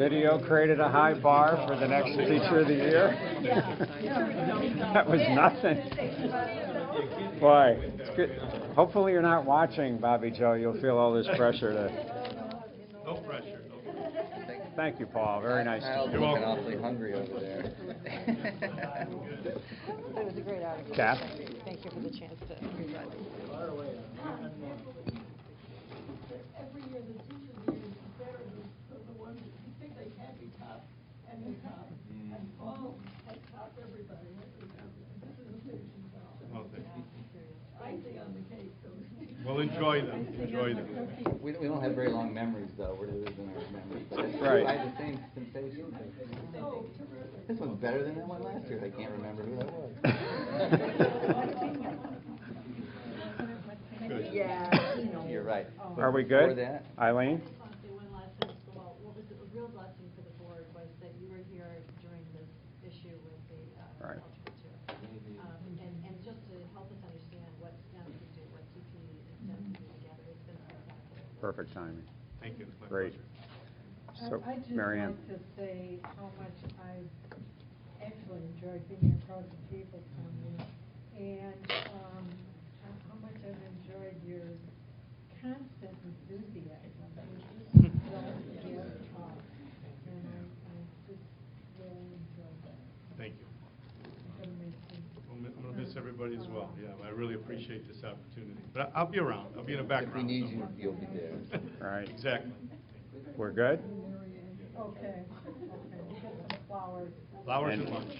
Video created a high bar for the next teacher of the year. That was nothing. Boy, it's good. hopefully you're not watching, Bobby Joe. You'll feel all this pressure to, No pressure, no pressure. thank you, Paul. Very nice. Kyle's You're looking welcome. awfully hungry over there. It was a great article. Kath? Thank you- Thank you for the chance to read that. every year, the teachers union is better than the ones that you think they can't be tough, and they're tough. And Paul has topped everybody. This is a station job. Well, thank you. Icing on the cake, so. Well, enjoy them, enjoy them. We don't, we don't have very long memories though, we're losing our memories, but it's Right. true, I had the same sensation. This one's better than that one last year, I can't remember who that was. Good. You're right. Are we Before good? that, Eileen? Honestly, one last thing, so what what was a real blessing for the board was that you were here during this issue with the uh, Right. cultural tour. Um, And, and just to help us understand what STEM can do, what CP and STEM can do together, it's been spectacular. Perfect timing. Thank you, it's my Great. pleasure. So, I- I'd just Mary Ann. like to say how much I've actually enjoyed being across the table from you, and um, how- how much I've enjoyed your constant enthusiasm. You just don't give up, and I I just really enjoyed that. Thank you. It's gonna make me- I'm gonna- I'm gonna miss everybody as well, yeah, I really appreciate this opportunity. But I- I'll be around, I'll be in the if we background need you, somewhere. you'll be there. Right. Exactly. We're good? Okay, okay, get some flowers. Flowers And and lunch.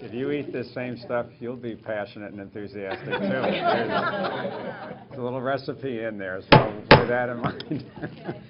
If you eat this same stuff, you'll be passionate and enthusiastic too. There's a little recipe in there, so bear that in mind.